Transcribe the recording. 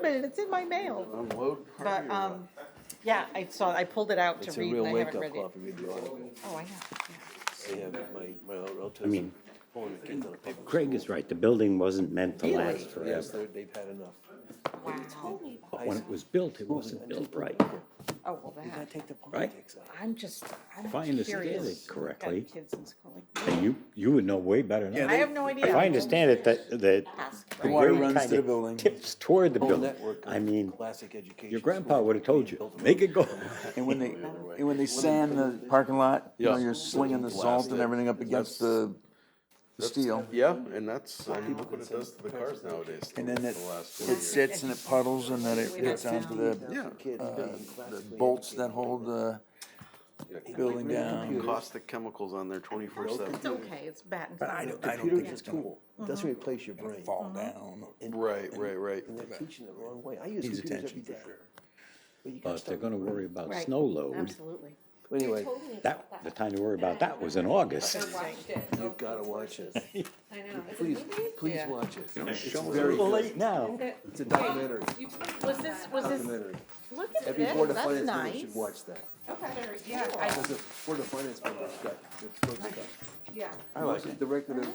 minute, it's in my mail. Unload. But, um, yeah, I saw, I pulled it out to It's a read and real I haven't wake-up read it. call if you read the article. Oh, I know, yeah. They have my, my old relatives. I mean, pulling the kids out of paper. Craig is right, the building wasn't meant to Yeah. last Yes, forever. they're- they've had enough. But when it was built, it wasn't built right. Oh, well, You gotta that, take the politics out. I'm just, I'm I curious. understand it Got correctly. Kids in school, like, And you, you would know way better than I I. have no idea. If I understand it, that, that Ask, the right? water grade runs kinda to the building. Tips toward the Whole building. network of I mean, classic education. your grandpa schools. would have told you, make it go. And when they, and when they sand the parking lot, you know, Yeah. you're slinging the salt and everything up against the the steel. Yeah, and that's, I mean, look what it does to the cars nowadays. And then it, The last two it years. sits and it puddles and then it gets onto the Yeah, uh, bolts that hold the building down. caustic chemicals on there twenty-four seven. It's okay, it's bad. But I don't, I don't Computer think is it's a gonna tool. It doesn't Mm-hmm. replace your brain. fall down. Right, right, right. And they're teaching it the wrong way. I use Needs computers every attention for day. sure. But you gotta But if they're start- gonna worry about Right. snow load, Absolutely. Anyway, that, the time to worry about that was in August. you've gotta watch it. I know. Is it Please, movie? please Yeah. watch it. It's It's very little good. late now. It's a documentary, You told me Was about this, that. was this, documentary. look at Every board this, of that's finance member nice. should watch that. Yeah, I, Because the board of finance member's got, it's supposed to got. yeah. I like it. Directed at